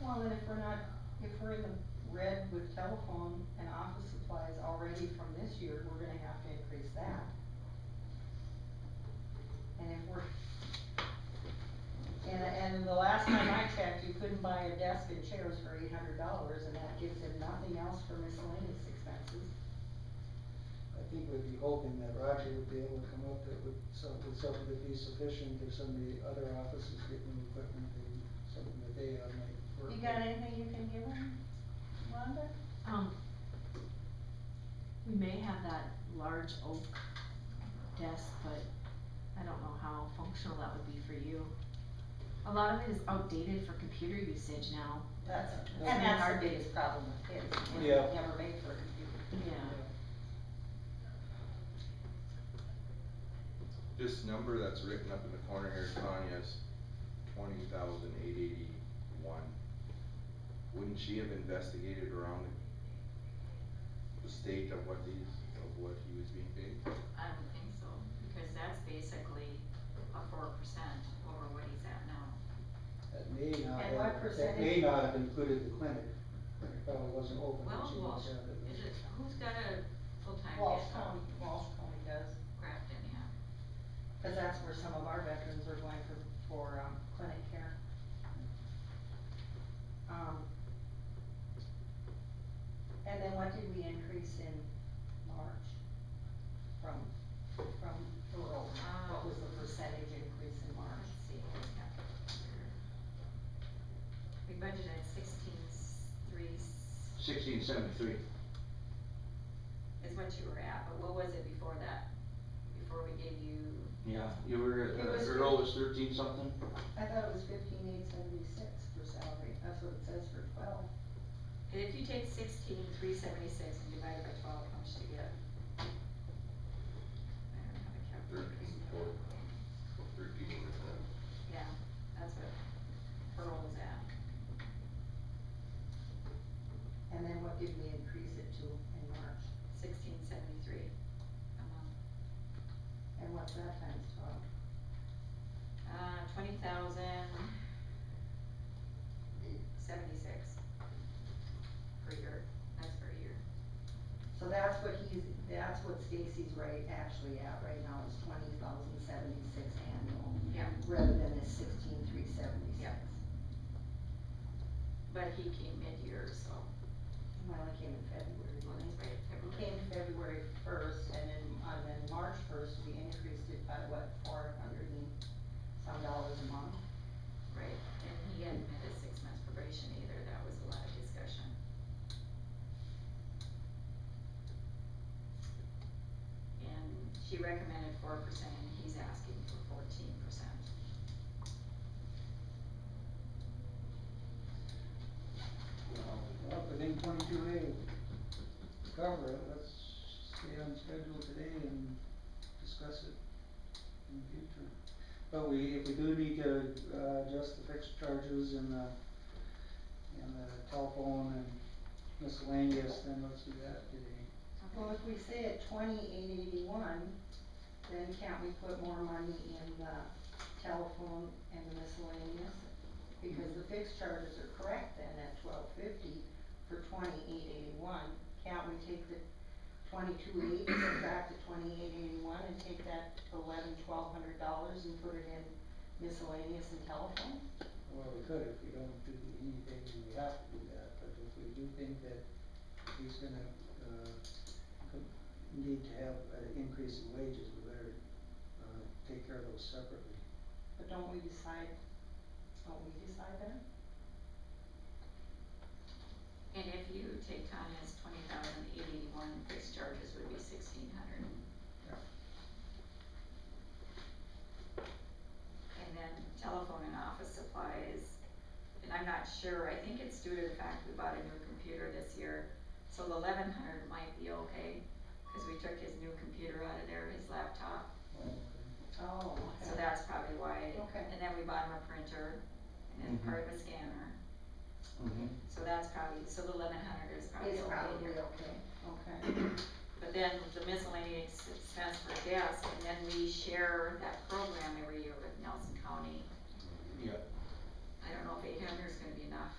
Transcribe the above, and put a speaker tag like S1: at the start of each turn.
S1: telephone, and if we're not, if we're in the red with telephone and office supplies already from this year, we're gonna have to increase that. And if we're, and, and the last time I checked, you couldn't buy a desk and chairs for eight hundred dollars, and that gives him nothing else for miscellaneous expenses.
S2: I think we'd be hoping that Roger would be able to come up that with some, with something that'd be sufficient if some of the other offices get new equipment and something that they have might work.
S1: You got anything you can give him, Rhonda?
S3: Um, we may have that large oak desk, but I don't know how functional that would be for you. A lot of it is outdated for computer usage now.
S1: That's,
S2: That's
S1: and
S2: the
S1: that's our
S3: hard-
S1: biggest problem with kids, is
S2: Yeah.
S1: they're never made for a computer.
S3: Yeah.
S4: This number that's written up in the corner here, Tanya's twenty thousand eight eighty-one. Wouldn't she have investigated around the- the state of what these, of what he was being paid?
S5: I would think so, because that's basically a four percent over what he's at now.
S2: That may not
S1: And what
S2: have, that
S1: percentage-
S2: may not have included the clinic. It probably wasn't open,
S5: Well,
S2: she
S5: Walsh,
S2: must have it.
S5: is it, who's got a full-time
S1: Walsh
S5: at
S1: County, Walsh County does,
S5: Grafton, yeah?
S1: cause that's where some of our veterans are going for, for, um, clinic care. Um. And then what did we increase in March from, from rural? What was the percentage increase in March?
S5: Let's see, what we got here. We budgeted sixteen, three is
S4: Sixteen seventy-three.
S5: what you were at, but what was it before that? Before we gave you,
S4: Yeah, you were, uh,
S1: It was- Earl
S4: was thirteen something?
S1: I thought it was fifteen eight seventy-six for salary, that's what it says for twelve.
S5: if you take sixteen, three seventy-six and divide it by twelve, how much do you get? I don't have a calculator.
S4: Thirteen, four, thirteen, uh,
S5: Yeah, that's what Pearl was at.
S1: And then what did we increase it to in March?
S5: sixteen seventy-three a month.
S1: And what's that times twelve?
S5: Uh, twenty thousand seventy-six per year, that's per year.
S1: So that's what he's, that's what Stacy's right, actually at right now is twenty thousand seventy-six annual,
S5: Yeah.
S1: rather than the sixteen three seventy-six.
S5: Yeah. But he came mid-year, so,
S1: Well, it came in February,
S5: well,
S1: didn't
S5: that's right,
S1: it?
S5: February.
S1: Came February first, and then, and then March first, we increased it by what, four hundred and some dollars a month?
S5: Right, and he hadn't met his six months probation either, that was a lot of discussion. And she recommended four percent, and he's asking for fourteen percent.
S2: Well, within twenty-two days, cover it, let's stay on schedule today and discuss it in the future. But we, if we do need to, uh, adjust the fixed charges and the, and the telephone and miscellaneous, then let's do that today.
S1: Well, if we say at twenty-eight eighty-one, then can't we put more money in the telephone and the miscellaneous? Because the fixed charges are correct then at twelve fifty for twenty-eight eighty-one, can't we take the twenty-two eighty, subtract the twenty-eight eighty-one and take that eleven, twelve hundred dollars and put it in miscellaneous and telephone?
S2: Well, we could, if we don't do anything, we have to do that, but if we do think that he's gonna, uh, co- need to have an increase in wages, we better, uh, take care of those separately.
S1: But don't we decide, don't we decide that?
S5: And if you take Tanya's twenty thousand eight eighty-one, fixed charges would be sixteen hundred.
S2: Yeah.
S5: And then telephone and office supplies, and I'm not sure, I think it's due to the fact we bought a new computer this year, so the eleven hundred might be okay, cause we took his new computer out of there, his laptop,
S1: Oh,
S5: so that's probably why.
S1: Okay.
S5: And then we bought him a printer, and then
S4: Mhm.
S5: part of a scanner, so that's probably, so the eleven hundred is probably okay
S1: It's
S5: here.
S1: probably okay, okay.
S5: But then the miscellaneous expense for desk, and then we share that program every year with Nelson County.
S4: Mm-hmm. Yeah.
S5: I don't know if eight hundred is gonna be enough.